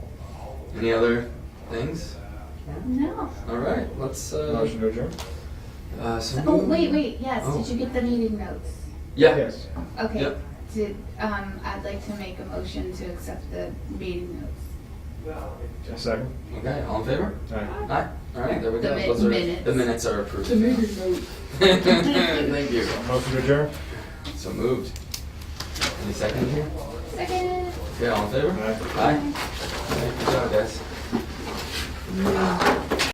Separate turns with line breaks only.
Any other things?
No.
All right, let's. Uh,
Motion to adjourn?
uh, so
Oh, wait, wait, yes,
Oh.
did you get the meeting notes?
Yeah.
Yes.
Okay.
Yep.
Did, um, I'd like to make a motion to accept the meeting notes.
A second?
Okay, all in favor?
Aye.
Aye. All right, there we
The
go.
mi-
Those are,
minutes.
The minutes are approved.
The meeting notes.
Thank you.
Motion to adjourn?
So moved. Any second here?
Second.
Okay, all in favor?
Aye.
Aye. All right, Good job, guys.